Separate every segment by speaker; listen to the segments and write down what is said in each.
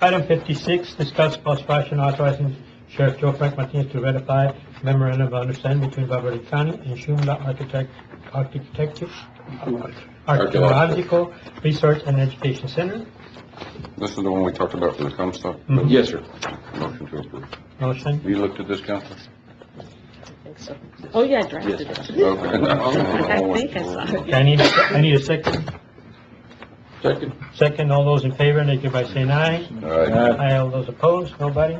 Speaker 1: Item fifty-six, discuss possible action authorizing Sheriff Joe Frank Martinez to ratify memorandum of understanding between Valverde County and Shumla Architect, Architecture, Archaeological Research and Education Center.
Speaker 2: This is the one we talked about for the comp stuff?
Speaker 1: Mhm.
Speaker 3: Yes, sir.
Speaker 2: Motion to approve.
Speaker 1: Motion.
Speaker 2: You looked at this, Counselor?
Speaker 4: think so. Oh, yeah, I drafted it. I think I saw it.
Speaker 1: Okay, I need, a- I need a second.
Speaker 3: Second.
Speaker 1: Second, all those in favor, indicate by saying aye.
Speaker 3: Uh,
Speaker 2: Aye.
Speaker 1: Aye, all those opposed, nobody.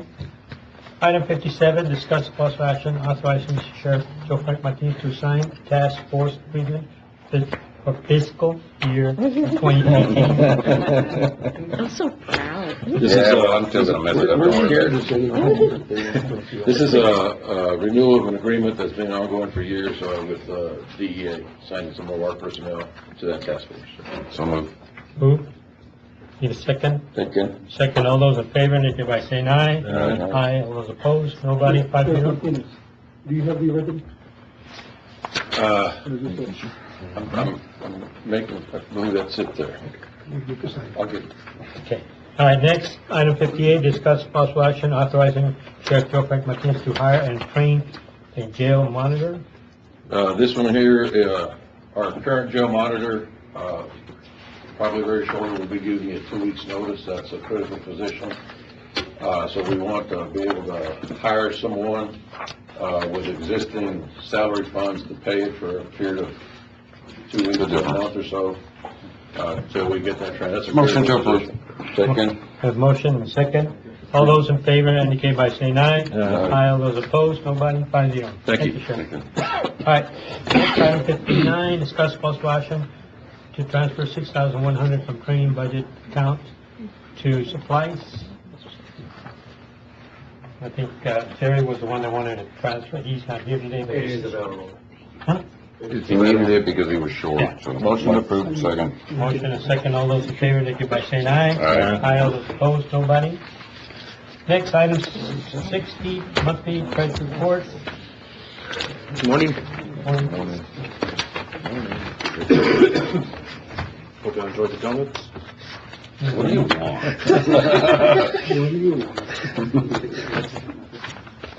Speaker 1: Item fifty-seven, discuss possible action authorizing Sheriff Joe Frank Martinez to sign task force agreement for fiscal year twenty eighteen.
Speaker 4: I'm so proud.
Speaker 3: This is,
Speaker 2: Yeah, well,
Speaker 3: uh,
Speaker 2: I'm still gonna mess it up.
Speaker 3: We're
Speaker 2: Don't worry.
Speaker 3: scared to say it. This is a, a renewal of an agreement that's been ongoing for years, uh, with, uh, DEA, signing some more of our personnel to that task force.
Speaker 2: So moved.
Speaker 1: Move. Need a second?
Speaker 3: Second.
Speaker 1: Second, all those in favor, indicate by saying aye.
Speaker 3: Aye.
Speaker 1: Aye, all those opposed, nobody, five
Speaker 5: There's
Speaker 1: zero.
Speaker 5: no finish. Do you have the ribbon?
Speaker 3: Uh,
Speaker 5: Or is this a-
Speaker 3: I'm, I'm, I'm making, I believe that's it there.
Speaker 5: you can sign.
Speaker 3: I'll get,
Speaker 1: Okay. All right, next, item fifty-eight, discuss possible action authorizing Sheriff Joe Frank Martinez to hire and train a jail monitor.
Speaker 3: Uh, this one here, uh, our current jail monitor, uh, probably very shortly will be giving you two weeks' notice. That's a critical position. Uh, so we want to be able to hire someone, uh, with existing salary funds to pay it for a period of two weeks, to a month or so, uh, till we get that trained. That's a
Speaker 2: Motion to
Speaker 3: critical
Speaker 2: approve.
Speaker 3: position.
Speaker 2: Second.
Speaker 1: Have motion and second. All those in favor indicate by saying aye. Aye. All those opposed, nobody, five zero.
Speaker 3: Thank you.
Speaker 1: Sheriff. All right, next item fifty-nine, discuss possible action to transfer six thousand one hundred from training budget account to supplies. I think uh, Jerry was the one that wanted to transfer, he's not here today, but he's...
Speaker 5: available.
Speaker 2: He needed it because he was short, so. Motion approved, second.
Speaker 1: Motion and second, all those in favor, indicate by saying aye.
Speaker 2: Aye.
Speaker 1: all those opposed, nobody. Next, item sixty, monthly treasury report.
Speaker 6: Morning.
Speaker 1: Um,
Speaker 6: Hope you enjoyed the donuts.
Speaker 2: What do you want?
Speaker 5: What do you want?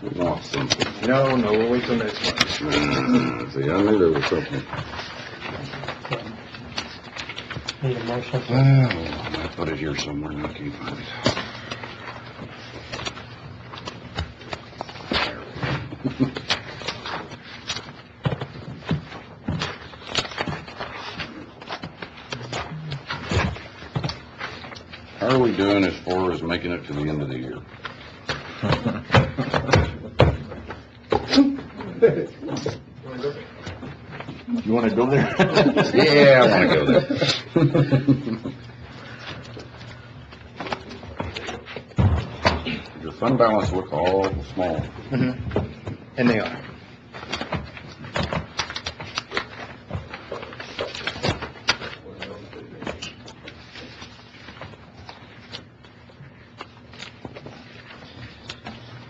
Speaker 2: You want something.
Speaker 6: No, no, we'll wait till next month.
Speaker 2: Mm, See, I knew there was something.
Speaker 1: Need a motion.
Speaker 2: Oh, I put it here somewhere and I can't find it. How are we doing as far as making it to the end of the year?
Speaker 6: You wanna go there?
Speaker 2: Yeah, I wanna go there. Your fund balance look all small.
Speaker 6: And they are.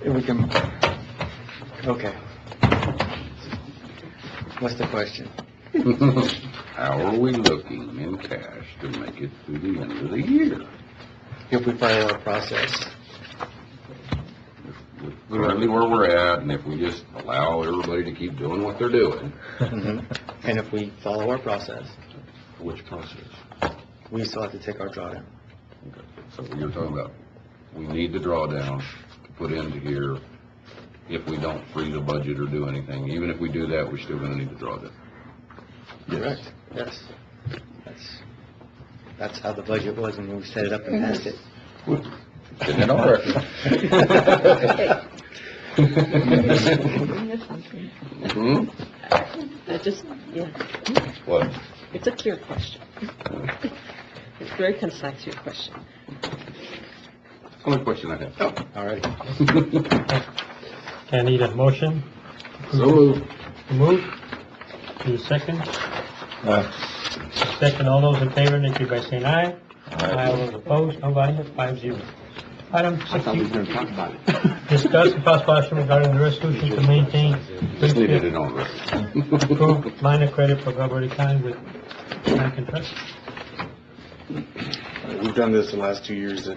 Speaker 6: If we can, okay. What's the question?
Speaker 2: How are we looking in cash to make it through the end of the year?
Speaker 6: If we follow our process.
Speaker 2: With Currently where we're at, and if we just allow everybody to keep doing what they're doing,
Speaker 6: Mhm. And if we follow our process,
Speaker 2: which process?
Speaker 6: we still have to take our drawdown.
Speaker 2: So you're talking about, we need the drawdown to put into here. If we don't free the budget or do anything, even if we do that, we're still gonna need the drawdown.
Speaker 6: Correct. Yes. That's, that's how the budget was when we set it up and passed it.
Speaker 2: Getting it all right. Hmm?
Speaker 4: I just, yeah,
Speaker 2: What?
Speaker 4: it's a clear question. It's very concise, your question.
Speaker 2: Only question I have.
Speaker 6: All right.
Speaker 1: Okay, I need a motion.
Speaker 2: So moved.
Speaker 1: Move. Need a second. Second, all those in favor, indicate by saying aye. Aye. All those opposed, nobody, five zero. Item sixty, discuss and possible action regarding the resolution to maintain
Speaker 2: Just needed it on record.
Speaker 1: approved line of credit for E. Valverde County with Bank and Trust.
Speaker 6: We've done this the last two years, that